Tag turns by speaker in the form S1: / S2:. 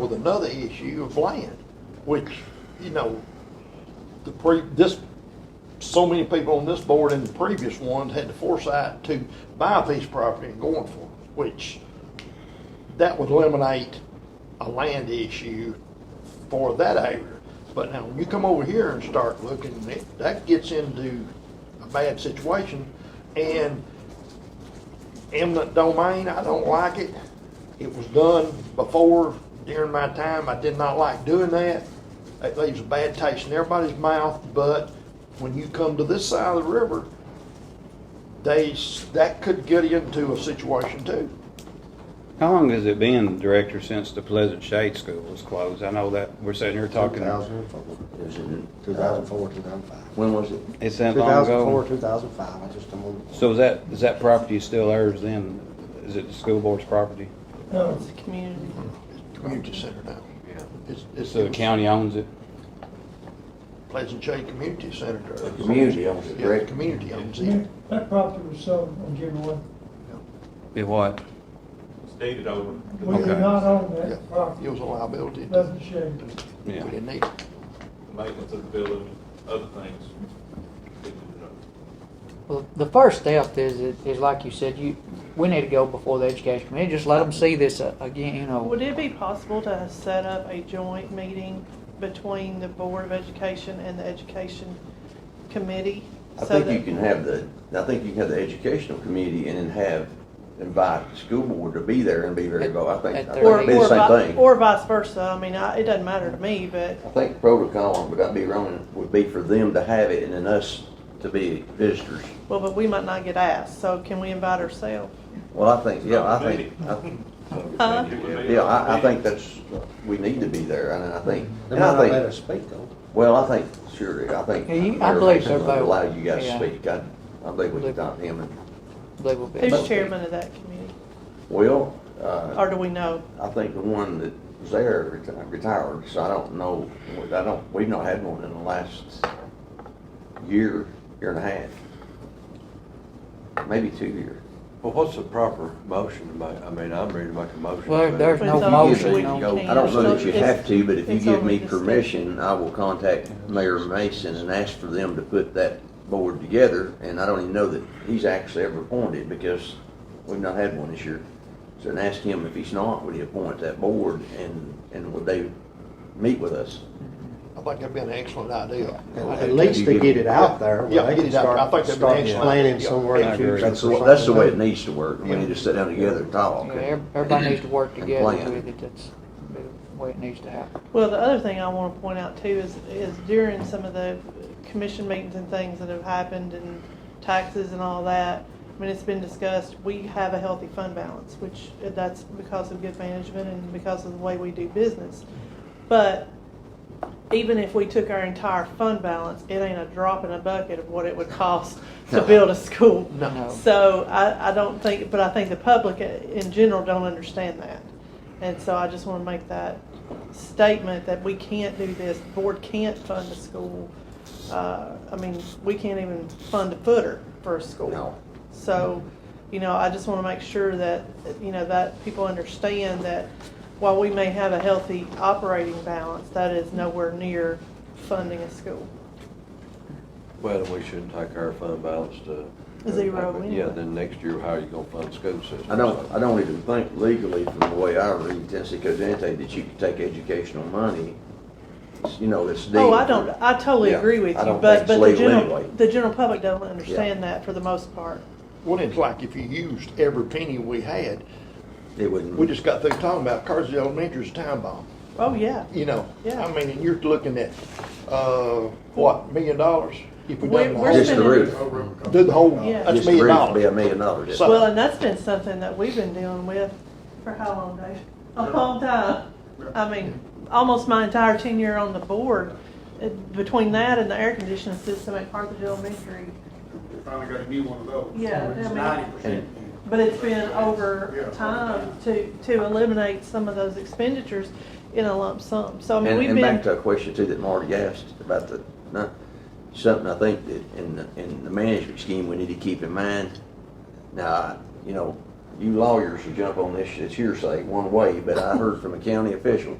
S1: with another issue of land, which, you know, the pre, this, so many people on this board and the previous ones had the foresight to buy a piece of property and going for it, which that would eliminate a land issue for that area. But now, when you come over here and start looking, it- that gets into a bad situation. And eminent domain, I don't like it. It was done before, during my time, I did not like doing that. It leaves a bad taste in everybody's mouth, but when you come to this side of the river, they, s- that could get you into a situation too.
S2: How long has it been, Director, since the Pleasant Shade School was closed? I know that we're sitting here talking,
S3: 2004,
S4: It was in,
S3: 2004, 2005.
S4: when was it?
S2: it's that long
S3: 2004,
S2: ago.
S3: 2005, I just don't remember.
S2: So is that, is that property still ours then? Is it the school board's property?
S5: No, it's a community.
S1: Community center now. Yeah. It's, it's.
S2: So the county owns it?
S1: Pleasant Shade Community Center.
S4: The community owns it,
S1: Yeah, the
S4: correct?
S1: community owns it.
S5: That that property was sold or given away.
S2: It what?
S6: Stated over.
S5: We did
S2: Okay.
S5: not own
S1: Yeah,
S5: that property.
S1: It was a liability.
S5: Doesn't shade.
S1: We
S2: Yeah.
S1: didn't need it.
S6: maintenance of the building, other things.
S7: Well, the first step is, is like you said, you, we need to go before the education committee, just let them see this uh, again, you know.
S8: Would it be possible to set up a joint meeting between the Board of Education and the Education Committee?
S4: I
S8: so
S4: think you
S8: that-
S4: can have the, I think you can have the educational committee and then have, invite the school board to be there and be very involved. I think,
S7: At
S4: I think
S7: their
S8: Or,
S4: it'd be
S8: or
S4: the same
S8: vi-
S4: thing.
S8: or vice versa, I mean, I, it doesn't matter to me, but
S4: I think protocol, would I be wrong, would be for them to have it and then us to be visitors.
S8: Well, but we might not get asked, so can we invite ourselves?
S4: Well, I think, yeah, I think,
S8: Huh?
S7: Uh-huh.
S4: I- yeah, I, I think that's, we need to be there and I think,
S3: They might
S4: and
S3: not
S4: I
S3: let
S4: think,
S3: us speak though.
S4: well, I think, sure, I think.
S7: Yeah, you- I
S4: Mayor
S7: believe
S4: Mason's
S7: so,
S4: gonna
S7: both.
S4: Allow you guys to
S7: Yeah.
S4: speak. I, I believe we can talk to him and,
S7: They will be.
S8: Who's chairman of that committee?
S4: well, uh.
S8: Or do we know?
S4: I think the one that was there reti- retired, so I don't know, I don't, we've not had one in the last year, year and a half. Maybe two years.
S9: Well, what's the proper motion to make? I mean, I'm ready to make a motion.
S7: Well,
S9: but-
S7: there's no
S8: It's on-
S7: motion
S8: we
S7: on
S8: can't.
S4: I don't know that you
S8: It's-
S4: have to, but if you
S8: it's
S4: give
S8: only
S4: me
S8: the state.
S4: permission, I will contact Mayor Mason and ask for them to put that board together, and I don't even know that he's actually ever appointed, because we've not had one this year. So then ask him if he's not, would he appoint that board, and, and would they meet with us?
S1: I think that'd be an excellent idea.
S3: At least to get it out there,
S1: Yeah,
S3: where they
S1: get
S3: can
S1: it out there. I think
S3: start,
S1: that'd be
S3: start
S1: excellent.
S3: planning
S1: Yeah.
S3: somewhere. in
S2: I
S3: the
S2: agree.
S3: future
S4: That's
S3: for
S4: the, that's the
S3: something.
S4: way it needs to work. We need to sit down together and talk.
S7: Yeah, ev- everybody needs to work
S4: And
S7: together
S4: plan.
S7: with it, that's the way it needs to happen.
S8: Well, the other thing I want to point out too is, is during some of the commission meetings and things that have happened and taxes and all that, I mean, it's been discussed, we have a healthy fund balance, which uh, that's because of good management and because of the way we do business. But even if we took our entire fund balance, it ain't a drop in a bucket of what it would cost to build a school.
S7: No.
S8: So I, I don't think, but I think the public in general don't understand that. And so I just want to make that statement that we can't do this, The board can't fund a school. Uh, I mean, we can't even fund a footer for a school.
S4: No.
S8: So, you know, I just want to make sure that, you know, that people understand that while we may have a healthy operating balance, that is nowhere near funding a school.
S9: Well, we shouldn't take our fund balance to.
S8: Zero
S9: Yeah,
S8: anyway.
S9: then next year, how are you gonna fund school system?
S4: I don't, I don't even think legally from the way I read Tennessee Code of Ethics that you can take educational money. It's, You know, it's deep.
S8: Oh, I don't, I totally
S4: Yeah,
S8: agree with
S4: I
S8: you,
S4: don't
S8: but,
S4: think
S8: but
S4: it's
S8: the
S4: legal
S8: general,
S4: anyway.
S8: the general public don't understand that for the most part.
S1: Well, it's like if you used every penny we had,
S4: It
S1: we
S4: woun't,
S1: just got through talking about Carsey Elementary's time bomb,
S8: Oh, yeah.
S1: you know?
S8: Yeah.
S1: I mean, and you're looking at, uh, what, million dollars? If we
S8: We're-
S1: done the
S8: we're
S1: whole-
S4: Just the
S8: spending-
S4: roof.
S1: Do the whole,
S8: Yeah.
S1: that's
S4: just
S1: a
S4: the
S1: million
S4: roof would be a
S1: dollars.
S4: million dollars.
S1: So-
S8: Well, and that's been something that we've been dealing with for how long, Dave? A long time. I mean, almost my entire tenure on the board, uh, between that and the air conditioning system at Carthage Elementary.
S10: Finally got a new one of those.
S8: Yeah, I mean-
S10: Ninety percent.
S8: But it's been over time to, to eliminate some of those expenditures in a lump sum. So I
S4: And,
S8: mean, we've
S4: and back to
S8: been,
S4: a question too that Marty asked about the, not, something I think that in the, in the management scheme, we need to keep in mind. Now, I- you know, you lawyers should jump on this, it's hearsay one way, but I heard from a county official